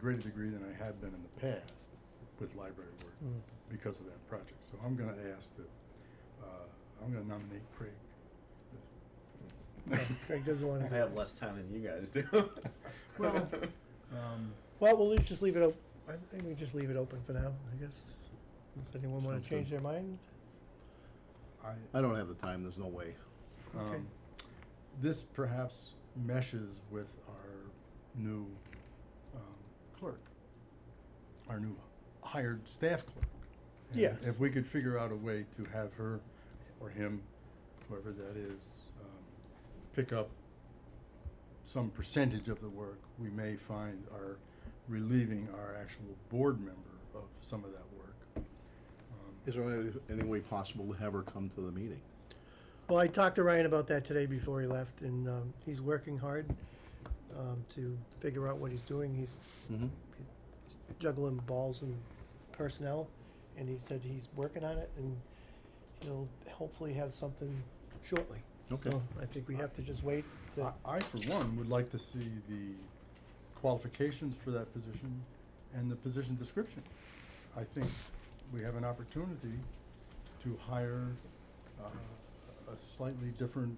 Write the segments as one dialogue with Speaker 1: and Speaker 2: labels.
Speaker 1: greater degree than I had been in the past with library work
Speaker 2: Mm.
Speaker 1: because of that project. So I'm gonna ask that, uh, I'm gonna nominate Craig.
Speaker 2: Oh, Craig doesn't wanna
Speaker 3: I
Speaker 2: do
Speaker 3: have
Speaker 2: it.
Speaker 3: less time than you guys do.
Speaker 1: Well, Um,
Speaker 2: Well, we'll leave- just leave it op- I think we just leave it open for now, I guess. Does anyone wanna
Speaker 4: Sounds
Speaker 2: change
Speaker 4: good.
Speaker 2: their mind?
Speaker 1: I,
Speaker 4: I don't have the time, there's no way.
Speaker 2: Okay.
Speaker 1: um, this perhaps meshes with our new, um, clerk, our new hired staff clerk. And
Speaker 2: Yes.
Speaker 1: If we could figure out a way to have her or him, whoever that is, um, pick up some percentage of the work, we may find our relieving our actual board member of some of that work. Um,
Speaker 4: Is there any, any way possible to have her come to the meeting?
Speaker 2: Well, I talked to Ryan about that today before he left, and um, he's working hard um, to figure out what he's doing. He's
Speaker 4: Mm-hmm.
Speaker 2: juggling balls and personnel, and he said he's working on it, and he'll hopefully have something shortly.
Speaker 4: Okay. Uh,
Speaker 2: So I think we have to just wait. To,
Speaker 1: I, I, for one, would like to see the qualifications for that position and the position description. I think we have an opportunity to hire uh, a slightly different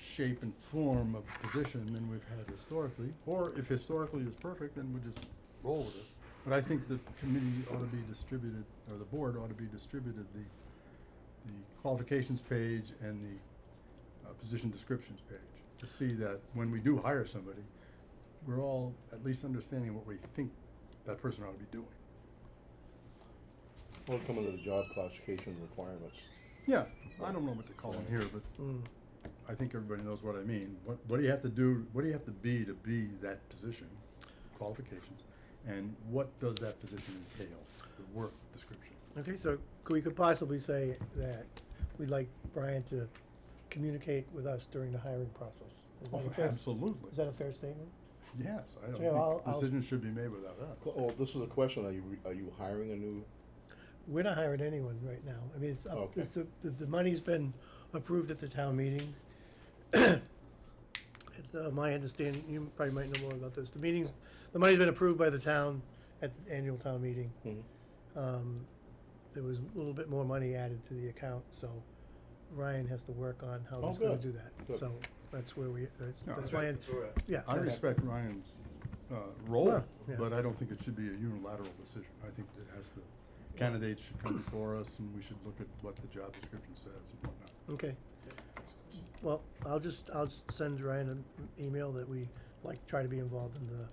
Speaker 1: shape and form of position than we've had historically, or if historically is perfect, then we just roll with it. But I think the committee ought to be distributed, or the board ought to be distributed, the, the qualifications page and the uh, position descriptions page, to see that when we do hire somebody, we're all at least understanding what we think that person ought to be doing.
Speaker 4: Well, come under the job classification requirements.
Speaker 1: Yeah, I don't know what to call them here, but
Speaker 2: Mm.
Speaker 1: I think everybody knows what I mean. What, what do you have to do, what do you have to be to be that position, qualifications? And what does that position entail, the work description?
Speaker 2: Okay, so c- we could possibly say that we'd like Brian to communicate with us during the hiring process. Is that
Speaker 1: Oh,
Speaker 2: a fair,
Speaker 1: absolutely.
Speaker 2: Is that a fair statement?
Speaker 1: Yes, I
Speaker 2: So I'll-
Speaker 1: don't think
Speaker 2: I'll-
Speaker 1: decisions should be made without that.
Speaker 4: Well, oh, this is a question, are you, re- are you hiring a new,
Speaker 2: We're not hiring anyone right now. I mean, it's up,
Speaker 4: Okay.
Speaker 2: it's, the, the- the money's been approved at the town meeting. It's, uh, my understanding, you probably might know more about this, the meetings, the money's been approved by the town at the annual town meeting. Um, there was a little bit more money added to the account, so Ryan has to work on how
Speaker 4: Oh,
Speaker 2: he's gonna
Speaker 4: good.
Speaker 2: do that.
Speaker 4: Good.
Speaker 2: So that's where we, that's,
Speaker 1: No,
Speaker 2: that's
Speaker 1: I-
Speaker 2: why, I- yeah.
Speaker 1: I
Speaker 2: okay.
Speaker 1: respect Ryan's, uh, role,
Speaker 2: Yeah, yeah.
Speaker 1: but I don't think it should be a unilateral decision. I think it has to, candidates should come before us and we should look at what the job description says and whatnot.
Speaker 2: Okay. Well, I'll just, I'll s- send Ryan an email that we like try to be involved in the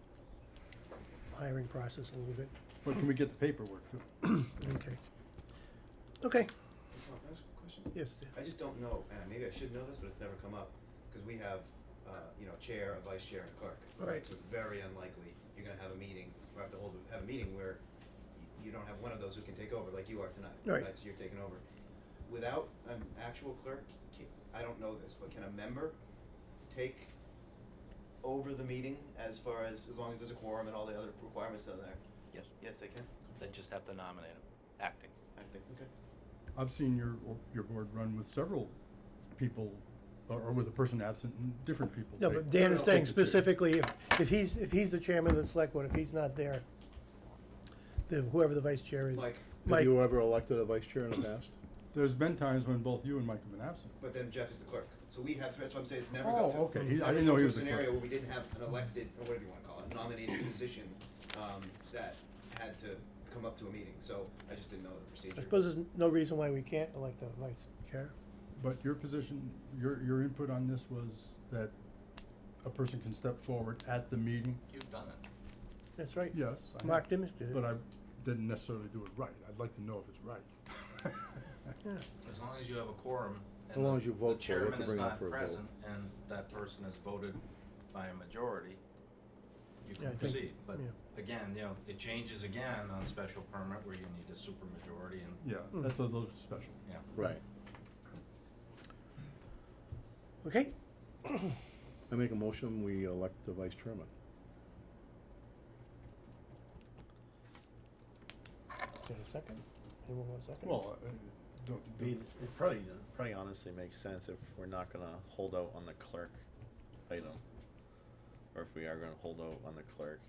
Speaker 2: hiring process a little bit.
Speaker 1: But can we get the paperwork too?
Speaker 2: Okay. Okay,
Speaker 5: Tom, can I ask a question?
Speaker 2: yes, Dan.
Speaker 5: I just don't know, and maybe I should know this, but it's never come up, because we have, uh, you know, chair, a vice chair, and a clerk.
Speaker 2: Right.
Speaker 5: So it's very unlikely you're gonna have a meeting, or have to hold, a- have a meeting where y- you don't have one of those who can take over, like you are tonight.
Speaker 2: Right.
Speaker 5: So you're taking over. Without an actual clerk, ca- I don't know this, but can a member take over the meeting as far as, as long as there's a quorum and all the other requirements down there?
Speaker 6: Yes,
Speaker 5: Yes, they can?
Speaker 6: they just have to nominate him, acting.
Speaker 5: I think, okay.
Speaker 1: I've seen your, your board run with several people, or, or with a person absent and different people.
Speaker 2: No,
Speaker 1: take-
Speaker 2: but Dan is
Speaker 1: take
Speaker 2: saying
Speaker 1: the chair.
Speaker 2: specifically, if, if he's, if he's the chairman of the select board, if he's not there, the, whoever the vice chair is.
Speaker 5: Mike,
Speaker 4: Have
Speaker 2: Mike,
Speaker 4: you ever elected a vice chair in the past?
Speaker 1: There's been times when both you and Mike have been absent.
Speaker 5: But then Jeff is the clerk, so we have, that's what I'm saying, it's never
Speaker 1: Oh,
Speaker 5: got to.
Speaker 1: okay.
Speaker 5: it's
Speaker 1: He- I
Speaker 5: never
Speaker 1: didn't know
Speaker 5: got
Speaker 1: he
Speaker 5: to a
Speaker 1: was the
Speaker 5: Scenario
Speaker 1: clerk.
Speaker 5: where we didn't have an elected, or whatever you wanna call it, nominated position, um, that had to come up to a meeting, so I just didn't know the procedure.
Speaker 2: I suppose there's no reason why we can't elect a vice chair.
Speaker 1: But your position, your, your input on this was that a person can step forward at the meeting?
Speaker 6: You've done it.
Speaker 2: That's right.
Speaker 1: Yes. I
Speaker 2: Mark
Speaker 1: have,
Speaker 2: Dimmich did it.
Speaker 1: But I didn't necessarily do it right. I'd like to know if it's right.
Speaker 2: Yeah.
Speaker 7: As long as you have a quorum.
Speaker 4: As
Speaker 7: and
Speaker 4: long
Speaker 7: the-
Speaker 4: as you vote for it,
Speaker 7: The
Speaker 4: to
Speaker 7: chairman is
Speaker 4: bring it
Speaker 7: not
Speaker 4: for a vote.
Speaker 7: present and that person is voted by a majority, you
Speaker 2: Yeah, I think-
Speaker 7: can proceed. But
Speaker 2: yeah.
Speaker 7: again, you know, it changes again on special permit where you need a supermajority and,
Speaker 1: Yeah,
Speaker 2: Hmm.
Speaker 1: that's a little special.
Speaker 7: yeah.
Speaker 4: Right.
Speaker 2: Okay,
Speaker 4: I make a motion, we elect the vice chairman.
Speaker 2: Got a second? Anyone want a second?
Speaker 1: Well, uh, don't,
Speaker 3: I mean,
Speaker 1: don't-
Speaker 3: it probably, probably honestly makes sense if we're not gonna hold out on the clerk item. Or if we are gonna hold out on the clerk,